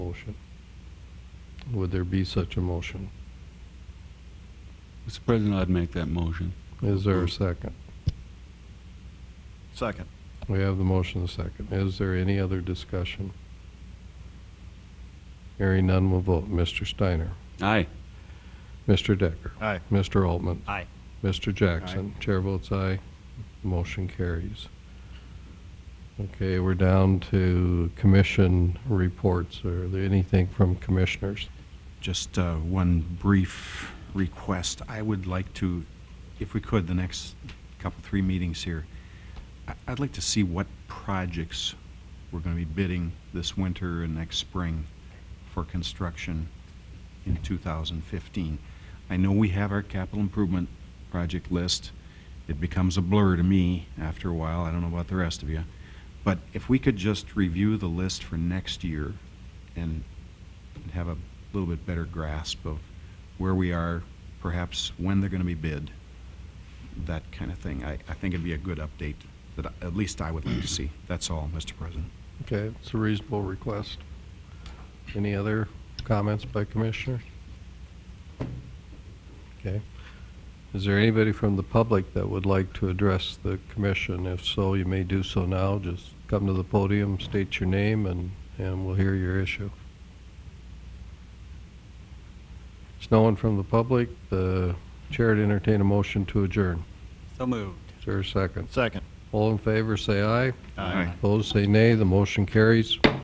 motion? Would there be such a motion? Mr. President, I'd make that motion. Is there a second? Second. We have the motion, the second. Is there any other discussion? Hearing none, will vote. Mr. Steiner. Aye. Mr. Decker. Aye. Mr. Altman. Aye. Mr. Jackson. Chair votes aye. Motion carries. Okay, we're down to commission reports. Are there anything from commissioners? Just uh, one brief request. I would like to, if we could, the next couple, three meetings here, I- I'd like to see what projects we're going to be bidding this winter and next spring for construction in 2015. I know we have our capital improvement project list. It becomes a blur to me after a while. I don't know about the rest of you. But if we could just review the list for next year and and have a little bit better grasp of where we are, perhaps when they're going to be bid, that kind of thing. I, I think it'd be a good update that I- at least I would like to see. That's all, Mr. President. Okay, it's a reasonable request. Any other comments by commissioners? Okay. Is there anybody from the public that would like to address the commission? If so, you may do so now. Just come to the podium, state your name, and, and we'll hear your issue. There's no one from the public. The chair to entertain a motion to adjourn. So moved. Is there a second? Second. All in favor, say aye. Aye. Opposed, say nay. The motion carries.